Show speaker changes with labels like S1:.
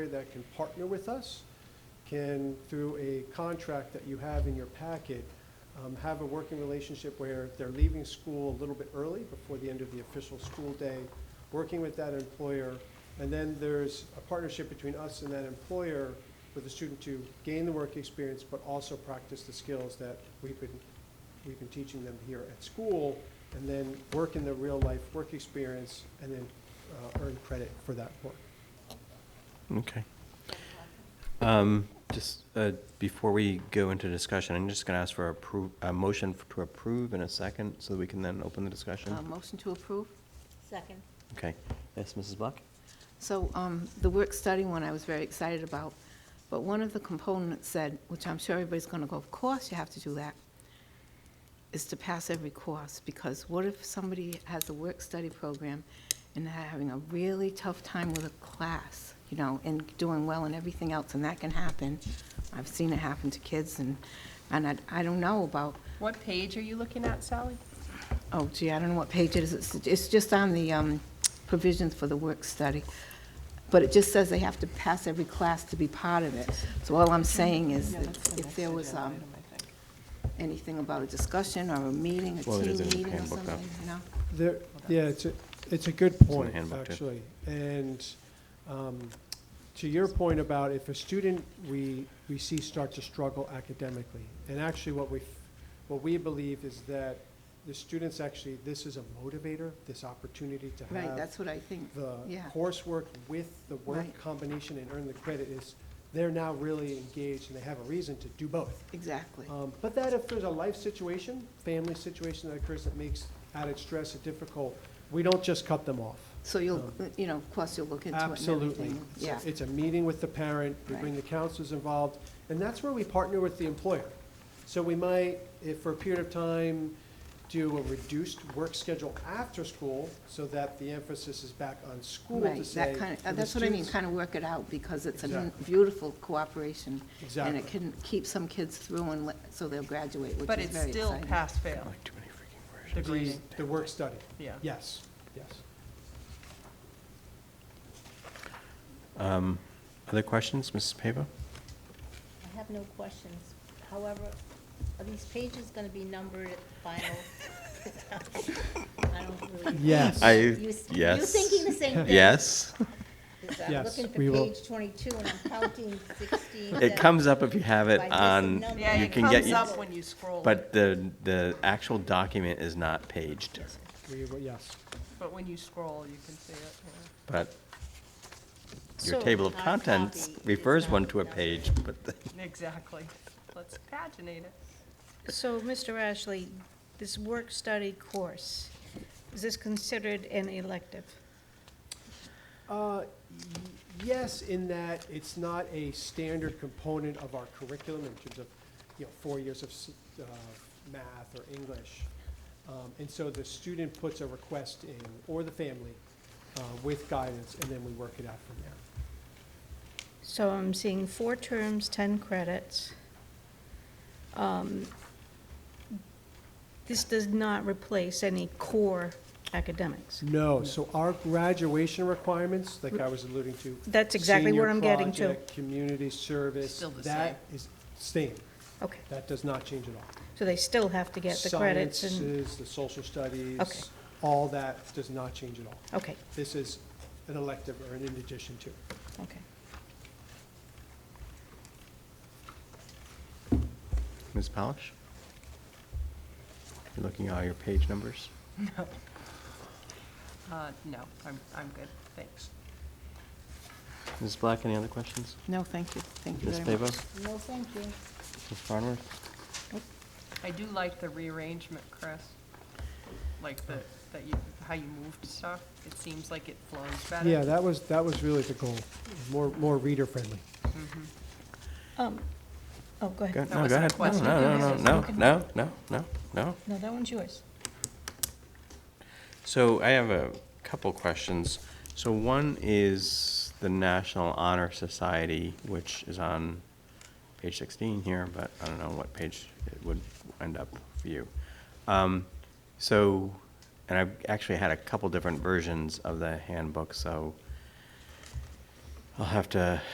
S1: that can partner with us, can, through a contract that you have in your packet, um, have a working relationship where they're leaving school a little bit early before the end of the official school day, working with that employer. And then there's a partnership between us and that employer for the student to gain the work experience, but also practice the skills that we've been, we've been teaching them here at school, and then work in the real-life work experience, and then uh, earn credit for that work.
S2: Okay. Um, Just uh, before we go into discussion, I'm just going to ask for appro- a motion f- to approve in a second so that we can then open the discussion.
S3: Um.
S4: Uh, Motion to approve.
S3: Second.
S2: Okay. Yes, Mrs. Black?
S4: So um, the work-study one I was very excited about, but one of the components said, which I'm sure everybody's going to go, of course you have to do that, is to pass every course, because what if somebody has a work-study program and they're having a really tough time with a class, you know, and doing well and everything else, and that can happen. I've seen it happen to kids, and, and I- I don't know about
S5: What page are you looking at, Sally?
S4: Oh gee, I don't know what page it is. It's- It's just on the um, provisions for the work study. But it just says they have to pass every class to be part of it. So all I'm saying is that if there was um, anything about a discussion or a meeting, a
S2: Well, it
S4: team
S2: is in the
S4: meeting or
S2: handbook, though.
S4: something, you know?
S1: There, yeah, it's a, it's a good
S2: the
S1: point,
S2: handbook, too.
S1: actually. And um, to your point about if a student we, we see start to struggle academically, and actually what we, f- what we believe is that the students actually, this is a motivator, this opportunity to
S4: Right,
S1: have
S4: that's what I think.
S1: the
S4: yeah.
S1: coursework with the work
S4: Right.
S1: combination and earn the credit is, they're now really engaged and they have a reason to do both.
S4: Exactly.
S1: Um, But that if there's a life situation, family situation that occurs that makes added stress and difficult, we don't just cut them off.
S4: So you'll, uh,
S1: um,
S4: you know, of course you'll look into it and
S1: Absolutely.
S4: everything.
S1: It's a-
S4: Yeah,
S1: It's a meeting with the parent, we bring the
S4: Right.
S1: counselors involved, and that's where we partner with the employer. So we might, if for a period of time, do a reduced work schedule after school so that the emphasis is back on school to
S4: right.
S1: say.
S4: That kind of,
S1: "For the
S4: that's what I mean,
S1: students-
S4: kind of work it out because it's a
S1: Exactly.
S4: beautiful cooperation. And
S1: Exactly.
S4: it can keep some kids through and let- so they'll graduate, which
S5: But
S4: is
S5: it's
S4: very
S5: still
S4: exciting.
S5: pass-fail,
S2: Like too many freaking versions.
S5: the
S1: The-
S5: grading,
S1: The work study,
S5: yeah.
S1: yes, yes.
S2: Um, Other questions, Mrs. Pavo?
S3: I have no questions. However, are these pages going to be numbered at final? I don't really.
S1: Yes.
S2: I-
S3: You- You
S2: yes.
S3: thinking the same thing?
S2: Yes.
S3: 'Cause I'm
S1: Yes,
S3: looking for
S1: we will.
S3: page 22 and I'm counting 16.
S2: It comes up if you have it
S3: By just a
S2: on,
S3: number.
S5: Yeah,
S2: you
S5: it
S2: can get,
S5: comes
S2: you-
S5: up when you scroll.
S2: but the, the actual document is not paged.
S1: We will- Yes.
S5: But when you scroll, you can see it. yeah.
S2: But your
S3: So
S2: table of
S3: our
S2: contents
S3: copy is
S2: refers
S3: not
S2: one to a
S3: numbered.
S2: page, but
S5: Exactly. Let's paginate it.
S6: So, Mr. Ashley, this work-study course, is this considered an elective?
S1: Uh, y- Yes, in that it's not a standard component of our curriculum in terms of, you know, four years of s- uh, math or English. Um, And so the student puts a request in, or the family, uh, with guidance, and then we work it out from there.
S6: So I'm seeing four terms, 10 credits. Um, This does not replace any core academics.
S1: No, so our graduation requirements, like I was alluding to.
S6: That's exactly
S1: senior
S6: what I'm getting to.
S1: project, Community service.
S5: Still the
S1: That is same.
S6: Okay,
S1: That does not change at all.
S6: so they still have to get the credits and,
S1: Sciences, the social studies.
S6: Okay.
S1: All that does not change at all.
S6: okay,
S1: This is an elective or an in addition to.
S6: okay.
S2: Ms. Polish? You're looking at all your page numbers?
S5: Uh, No, I'm, I'm good, thanks.
S2: Ms. Black, any other questions?
S4: No, thank you, thank you
S2: Ms.
S4: very
S2: Pavo?
S4: much.
S2: Ms.
S3: No, thank you.
S2: Farmer?
S5: I do like the rearrangement, Chris. Like the, that you, how you moved stuff. It seems like it flows better.
S1: Yeah, that was, that was really the goal, more, more reader friendly.
S5: Mhm.
S6: Um, Oh,
S2: Go-
S6: go ahead.
S5: That wasn't a question.
S2: No, no, no, no, no,
S6: Okay.
S2: no, no, no, no.
S6: No, that one's yours.
S2: So I have a couple questions. So one is the National Honor Society, which is on page 16 here, but I don't know what page it would end up for you. Um, So, and I've actually had a couple different versions of the handbook, so I'll have to